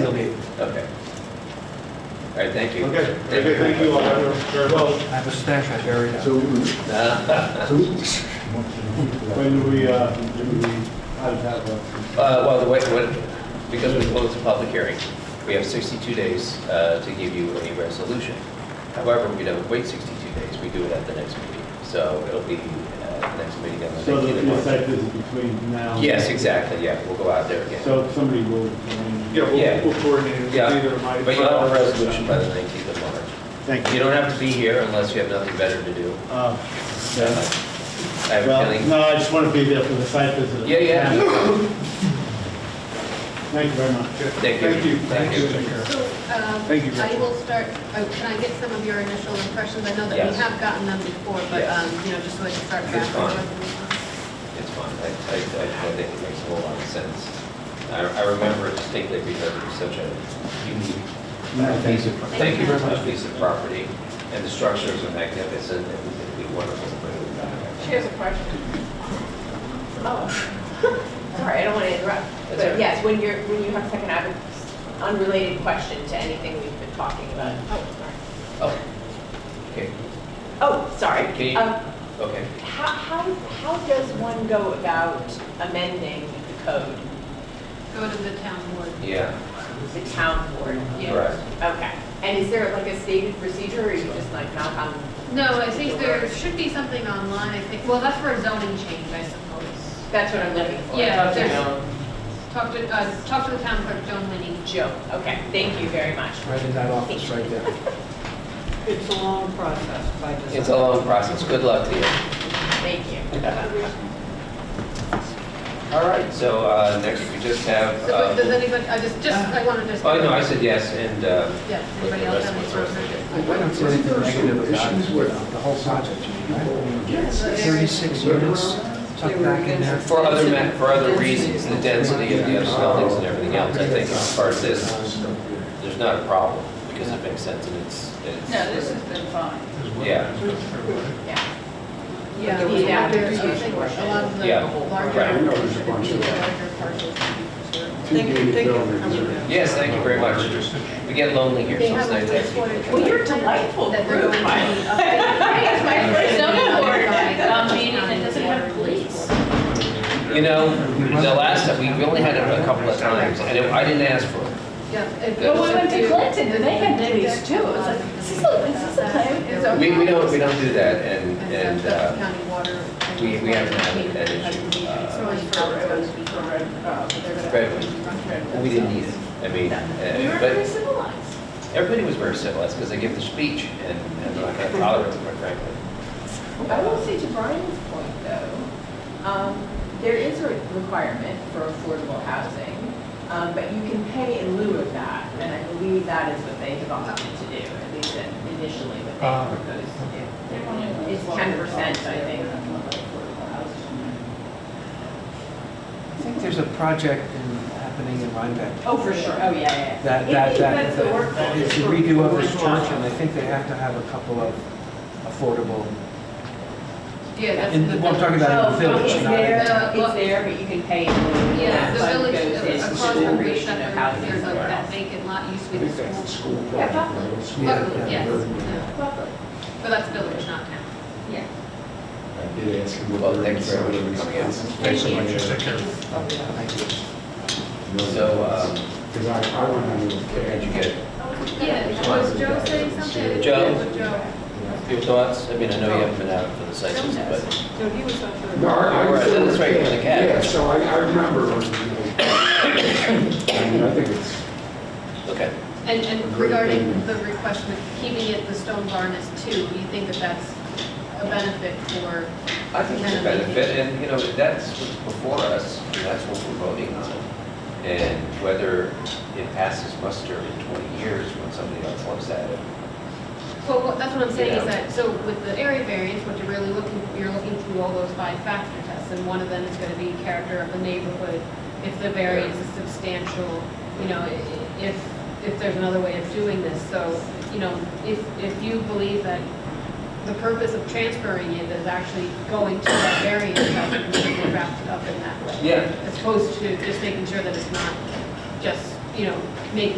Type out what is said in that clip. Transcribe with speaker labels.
Speaker 1: They'll be-
Speaker 2: Okay. All right, thank you.
Speaker 3: Okay, very good, thank you all very much.
Speaker 1: I have a stash I buried out.
Speaker 4: So,
Speaker 2: Uh,
Speaker 4: so
Speaker 3: When do we, uh, do we, how to have a,
Speaker 2: Well, the way, what, because we closed the public hearing, we have 62 days uh, to give you a resolution. However, we don't wait 62 days, we do it at the next meeting. So it'll be uh, the next meeting on the
Speaker 3: so that
Speaker 2: 19th
Speaker 3: the
Speaker 2: of March.
Speaker 3: site visit between now? and-
Speaker 2: Yes, exactly, yeah, we'll go out there again.
Speaker 3: So somebody will.
Speaker 5: Yeah,
Speaker 2: Yeah.
Speaker 5: we'll, we'll coordinate. it.
Speaker 2: Yeah,
Speaker 5: Either my-
Speaker 2: But you'll have a resolution by the 19th of March.
Speaker 3: Thank
Speaker 2: You don't have to be here unless you have nothing better to do.
Speaker 3: Uh,
Speaker 2: Uh,
Speaker 3: yeah.
Speaker 2: I have a
Speaker 3: Well,
Speaker 2: feeling.
Speaker 3: no, I just want to be there for the site visit.
Speaker 2: Yeah, yeah.
Speaker 3: Thank you very much.
Speaker 5: Okay.
Speaker 2: Thank you. Thank
Speaker 5: Thank you.
Speaker 2: you.
Speaker 5: Take care.
Speaker 6: So, um,
Speaker 5: Thank you,
Speaker 6: I
Speaker 5: Gretchen.
Speaker 6: will start, oh, can I get some of your initial impressions? I know that
Speaker 2: Yes.
Speaker 6: we have gotten them before, but,
Speaker 2: Yes.
Speaker 6: um, you know, just so I can start
Speaker 2: It's
Speaker 6: back.
Speaker 2: fine. It's fine, I, I, I I think it makes a whole lot of sense. I, I remember distinctly because it was such a unique uh, piece of, thank you very much, piece of property, and the structures are magnificent, and it'd be wonderful to bring it
Speaker 7: She
Speaker 2: back.
Speaker 7: has a question. Oh, sorry, I don't want to interrupt.
Speaker 2: That's all right.
Speaker 7: But yes, when you're, when you have second avenue, unrelated question to anything we've been talking about. Oh, sorry.
Speaker 2: Oh, okay,
Speaker 7: Oh, sorry.
Speaker 2: Can you-
Speaker 7: Um,
Speaker 2: okay.
Speaker 7: How, how, how does one go about amending the code,
Speaker 6: Go to the town board.
Speaker 2: Yeah,
Speaker 7: the town board? yeah.
Speaker 2: Correct.
Speaker 7: Okay. And is there like a stated procedure, or you just like knock on?
Speaker 6: No, I think there should be something online, I think, well, that's for a zoning change, I suppose.
Speaker 7: That's what I'm looking for.
Speaker 6: Yeah, there's, talk to, uh, talk to the town clerk, Joan Lenny.
Speaker 7: Joe, okay, thank you very much.
Speaker 1: Right in that office, right there.
Speaker 8: It's a long process by design.
Speaker 2: it's a long process, good luck to you.
Speaker 7: Thank you.
Speaker 2: All right, so, uh, next we just have,
Speaker 6: So
Speaker 2: uh,
Speaker 6: but does anybody, I just, just, I wanted to.
Speaker 2: oh, no, I said yes, and, uh,
Speaker 6: Yeah,
Speaker 2: with the
Speaker 6: anybody else
Speaker 2: rest
Speaker 6: have
Speaker 2: of
Speaker 6: any
Speaker 2: the rest of it.
Speaker 6: comments?
Speaker 4: I don't see anything negative about it, you know, the whole project, right?
Speaker 1: Thirty-six units tucked back in there.
Speaker 2: For other, ma- for other reasons, the density of the other buildings and everything else, I think as far as
Speaker 1: Uh,
Speaker 2: this, there's not a problem, because it makes sense and it's, it's.
Speaker 7: been fine.
Speaker 2: Yeah,
Speaker 7: Yeah.
Speaker 6: Yeah,
Speaker 7: There
Speaker 6: I
Speaker 7: was
Speaker 6: think
Speaker 7: a lot of
Speaker 6: a lot of the
Speaker 2: Yeah,
Speaker 6: larger.
Speaker 2: right.
Speaker 4: No, there's a
Speaker 6: the
Speaker 4: bunch of that.
Speaker 6: larger parcels should be preserved.
Speaker 4: Two
Speaker 8: Thank you,
Speaker 4: gated
Speaker 8: thank you.
Speaker 4: buildings. are-
Speaker 2: yes, thank you very much. We get lonely here,
Speaker 6: They
Speaker 2: so
Speaker 6: have
Speaker 2: it's
Speaker 6: a
Speaker 2: nice to have
Speaker 6: wastewater.
Speaker 2: people.
Speaker 7: Well, you're a delightful
Speaker 6: That they're going to
Speaker 7: group.
Speaker 6: be updating.
Speaker 7: It's my first zoning board, um,
Speaker 6: meeting that doesn't have police.
Speaker 2: You know, the last time, we we only had it a couple of times, and it- I didn't ask for it.
Speaker 6: But
Speaker 2: we
Speaker 7: went to Clinton, and they had police too. It was like, this is a- this is a plan. It's a-
Speaker 2: We, we don't, we don't do that, and,
Speaker 6: And
Speaker 2: and,
Speaker 6: Suffolk
Speaker 2: uh,
Speaker 6: County Water. and
Speaker 2: we- we haven't had
Speaker 6: Wastewater
Speaker 2: that
Speaker 6: Management
Speaker 2: issue,
Speaker 6: Agency.
Speaker 2: uh,
Speaker 6: So it's not supposed to be correct.
Speaker 2: Redwood, we didn't need it, I mean,
Speaker 7: We were
Speaker 2: uh, but
Speaker 7: pretty civilized.
Speaker 2: everybody was very civilized, because they give the speech, and, and I can't tolerate it, quite frankly.
Speaker 7: I will say to Brian's point, though, um, there is a requirement for affordable housing, um, but you can pay in lieu of that, and I believe that is what they have opted to do, at least initially what
Speaker 1: Ah.
Speaker 7: they proposed to do. It's ten percent, I think.
Speaker 1: I think there's a project in, happening in Rhinebeck.
Speaker 7: Oh, for sure, oh, yeah, yeah.
Speaker 1: That, that, that, that- it's a redo of this church, and I think they have to have a couple of affordable,
Speaker 6: Yeah, that's.
Speaker 1: and
Speaker 6: the-
Speaker 1: well, I'm talking about in the
Speaker 7: Oh,
Speaker 1: village,
Speaker 7: it's
Speaker 1: not in the
Speaker 7: there, it's there, but you can pay. in lieu.
Speaker 6: Yeah, the
Speaker 7: That fund
Speaker 6: village,
Speaker 7: goes in
Speaker 6: across from Great
Speaker 7: creation of
Speaker 6: Shepherd,
Speaker 7: housing
Speaker 6: there's like
Speaker 7: somewhere
Speaker 6: that
Speaker 7: else.
Speaker 6: vacant lot used to
Speaker 4: I
Speaker 6: be
Speaker 4: think
Speaker 6: the
Speaker 4: that's the
Speaker 6: school.
Speaker 4: school.
Speaker 7: Yeah, probably.
Speaker 6: Buckley,
Speaker 4: Yeah.
Speaker 6: yes, yeah. But that's village, not town.
Speaker 7: Yeah.
Speaker 4: I did ask him
Speaker 2: Well,
Speaker 4: what.
Speaker 2: thanks very much for coming out.
Speaker 6: Thank you.
Speaker 2: So, um,
Speaker 4: Because I, I went on to.
Speaker 2: did you get
Speaker 6: Yeah, was Joe saying something? I didn't
Speaker 2: Joe?
Speaker 6: hear what Joe.
Speaker 2: your thoughts? I mean, I know you haven't been out for the sessions, but
Speaker 8: No, he was not sure.
Speaker 4: No, I I was.
Speaker 2: Right, that's right, for the cat.
Speaker 4: Yeah, so I, I remember, when, you know, I mean, I think it's.
Speaker 2: okay.
Speaker 6: And, and regarding the request of keeping it the stone barn as two, you think that that's a benefit for,
Speaker 2: I think it's a benefit, and, you know, that's what's before us, and that's what we're voting on. And whether it passes muster in 20 years when somebody else looks at it.
Speaker 6: well, what- that's what I'm saying is that, so with the area variance, what you're really looking, you're looking through all those five factor tests, and one of them is gonna be character of the neighborhood, if the variance is substantial, you know, i- i- if, if there's another way of doing this, so, you know, if, if you believe that the purpose of transferring it is actually going to that variance, I think we should wrap it up in that way.
Speaker 2: Yeah.
Speaker 6: as opposed to just making sure that it's not just you know, make